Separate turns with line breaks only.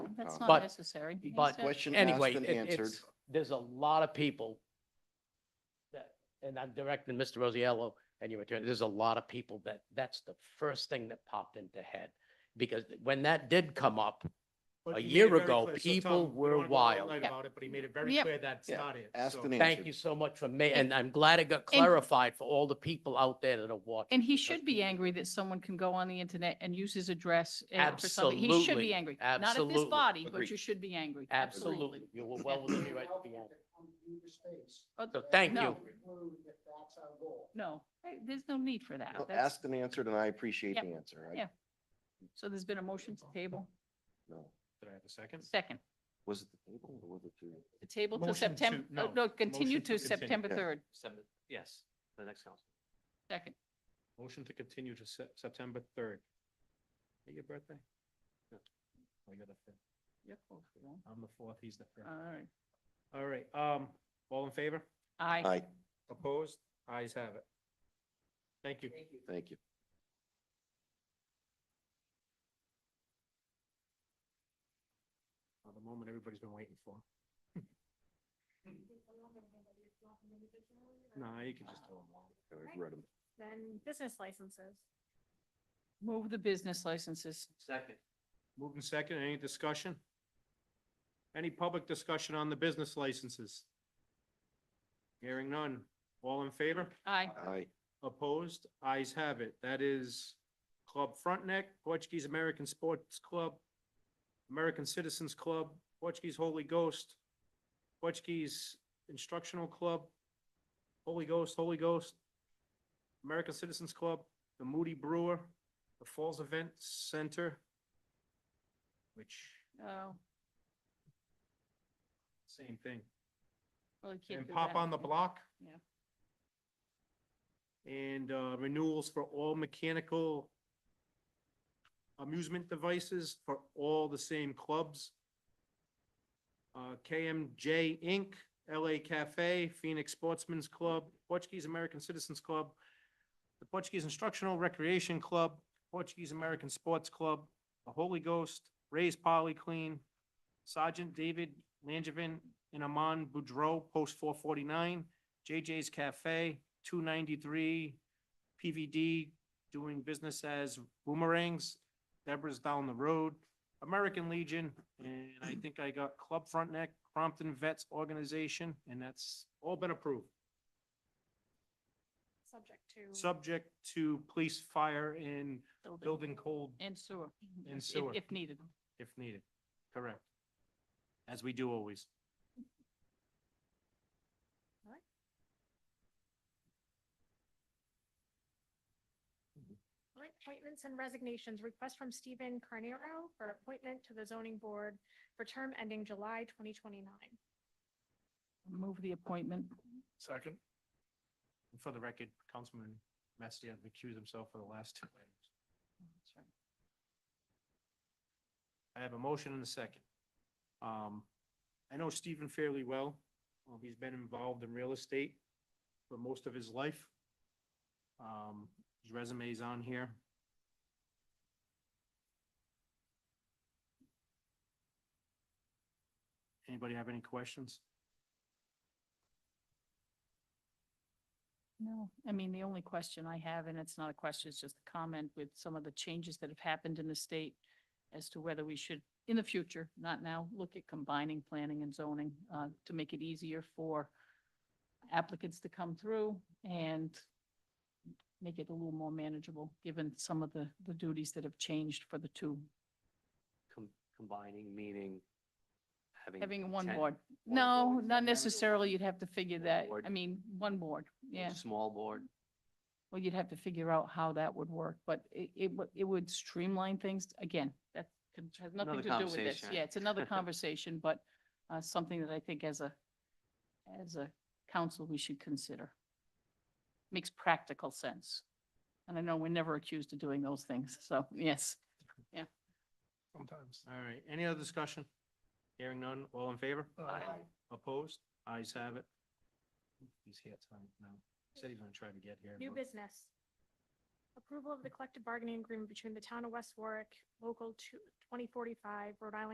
That's
Uh,
not
but-
necessary. You
but-
said-
Question asked
Uh, Anyway,
and
it-
answered.
it's, there's a lot of people that, and I'm directing Mr. Rosiello and your attorney, there's a lot of people that, that's the first thing that popped into head. Because when that did come up, A
But he made
year
it very
ago,
clear. So,
people
Tom, we don't
were
wanna go all
wild.
night
Yeah.
about it, but he made it very
Yeah.
clear that's
Yeah.
not it.
Asked
So-
and answered.
thank you so much for me, and I'm glad it got
And-
clarified for all the people out there that are watching.
And he should be angry that someone can go on the internet and use his address. and for something. He should
Absolutely.
be angry. Not at this
Absolutely.
body, but
Agreed.
you should be angry.
Absolutely, you were well within your right to be angry. So thank
No.
you.
No, hey, there's no need for that.
Well,
That's-
Asked and answered, and I appreciate
Yeah.
the answer. I-
Yeah. So there's been a motion to table.
No.
Did I have a second?
Second,
Was it the table or was it the?
the table to
Motion to-
September,
no.
no, continue
Motion
to
to continue.
September
Yeah.
3rd.
Yes, the next council.
Second,
Motion to continue to Sep- September third. Hey, your birthday? No. Oh, you're the fifth. Yep. I'm the fourth, he's the
all
fifth.
right.
All right, um, all in favor?
Aye.
Aye,
Opposed? Eyes have it. Thank you.
thank you.
Uh, The moment everybody's been waiting for. No, you can just throw them all.
I read 'em.
Then business licenses.
Move the business licenses.
Second.
Moving second, any discussion? Any public discussion on the business licenses? Hearing none. All in favor?
Aye.
Aye,
Opposed? Eyes have it. That is Club Frontneck, Portuguese American Sports Club, American Citizens Club, Portuguese Holy Ghost, Portuguese Instructional Club, Holy Ghost, Holy Ghost, American Citizens Club, the Moody Brewer, the Falls Event Center, which,
Oh,
same thing.
well, you can't
And
do
Pop
that.
on the Block.
Yeah.
And uh, renewals for all mechanical amusement devices for all the same clubs. Uh, KMJ Inc., LA Cafe, Phoenix Sportsman's Club, Portuguese American Citizens Club, the Portuguese Instructional Recreation Club, Portuguese American Sports Club, the Holy Ghost, Ray's Polyclean, Sergeant David Langevin and Amon Boudreau, post four forty-nine, JJ's Cafe, two ninety-three, PVD, doing business as Boomerangs, Deborah's Down the Road, American Legion, and I think I got Club Frontneck, Crompton Vets Organization, and that's all been approved,
Subject to.
subject to police, fire, and building code
And sewer.
And
if-
sewer.
If needed.
if needed. Correct. As we do always.
Alright. Alright, Appointments and resignations. Request from Stephen Carnero for appointment to the zoning board for term ending July twenty twenty-nine.
Move the appointment.
Second. For the record, Councilman Messia recused himself for the last two items. I have a motion and a second. Um, I know Stephen fairly well. Um, he's been involved in real estate for most of his life. Um, his resume's on here. Anybody have any questions?
No, I mean, the only question I have, and it's not a question, it's just a comment with some of the changes that have happened in the state as to whether we should, in the future, not now, look at combining planning and zoning uh, to make it easier for applicants to come through and make it a little more manageable, given some of the, the duties that have changed for the two,
Com- Combining, meaning having.
having one
10
board.
one
No,
board.
not necessarily. You'd have to figure
One
that.
board.
I mean, one board,
One
yeah.
Small board.
Well, you'd have to figure out how that would work, but it, it, would- it would streamline things. Again, that can- has nothing
Another
to do with this.
conversation.
Yeah, it's another conversation, but, uh, something that I think as a, as a council, we should consider. Makes practical sense. And I know we're never accused of doing those things, so, yes.
Sometimes. All right, any other discussion? Hearing none, all in favor?
Aye.
Opposed? Ayes have it. He's here tonight, no. Said he's gonna try to get here.
New
but-
business. Approval of the collective bargaining agreement between the town of West Warwick, local two- 2045, Rhode Island